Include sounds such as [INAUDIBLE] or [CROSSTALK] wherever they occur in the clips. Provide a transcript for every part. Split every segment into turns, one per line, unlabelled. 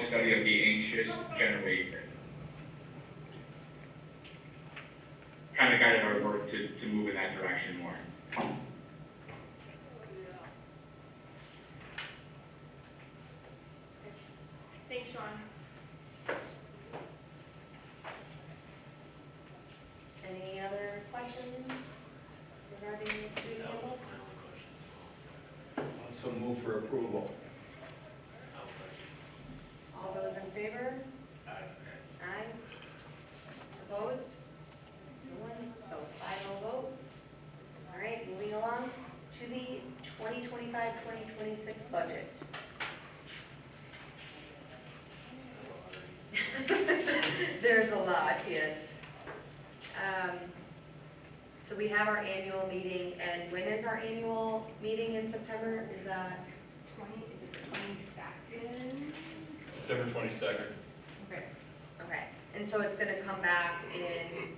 study of the anxious generator. Kind of guided our work to, to move in that direction more.
Thanks, Sean.
Any other questions regarding the student handbooks?
So move for approval.
All those in favor? Aye. Opposed? No one, so it's five oh vote. All right, moving along to the 2025-2026 budget. [LAUGHS] There's a lot, yes. Um, So we have our annual meeting, and when is our annual meeting in September? Is that?
Twenty, is it the twenty-second?
September twenty-second.
Okay.
Okay, and so it's gonna come back in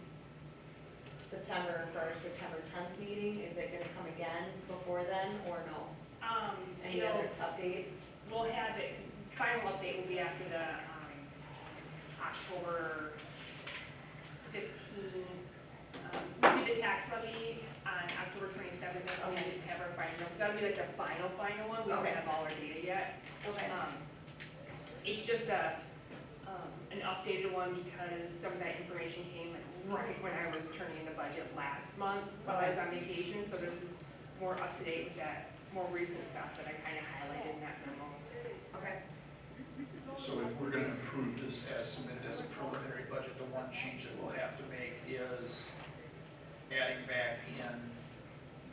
September for our September tenth meeting, is it gonna come again before then, or no?
Um,
Any
you know,
other updates?
we'll have it, final update will be after the, um, October fifteen. Um, we did the tax levy on October twenty-seventh, and we
Okay.
didn't have our final, so that'll be like the final, final one, we don't
Okay.
have all our data yet.
Okay,
Um, It's just a, um, an updated one because some of that information came right when I was turning in the budget last month while I was on vacation, so this is more up to date with that more recent stuff that I kind of highlighted in that memo.
okay,
So if we're gonna approve this as submitted as a preliminary budget, the one change that we'll have to make is adding back in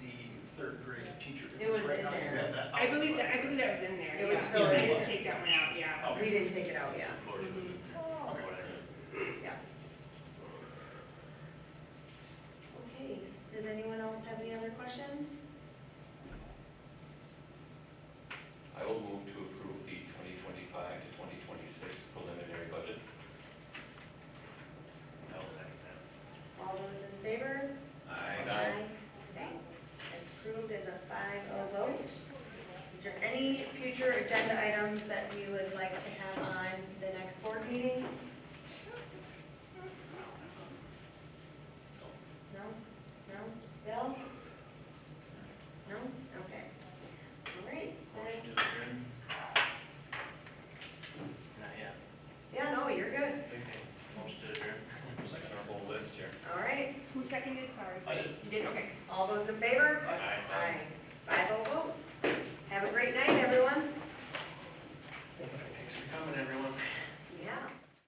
the third grade teacher.
It was
because right
in
now you
there.
have that
I
out.
believe that, I believe that was in there,
It was
yeah.
still in
I didn't
there.
take that one out, yeah.
we
Okay,
didn't take it out yet, Oh,
okay.
okay, does anyone else have any other questions?
I will move to approve the twenty twenty-five to twenty twenty-six preliminary budget.
All those in favor? Okay, It's approved as a five oh vote. Is there any future agenda items that we would like to have on the next board meeting? No? No? Bill? No? Okay. All right. then-
Not yet.
Yeah, no, you're good.
Okay. Motion to adjourn. Second on our whole list here.
All right.
Who seconded, sorry?
I did.
You did, okay.
All those in favor? oh
Aye.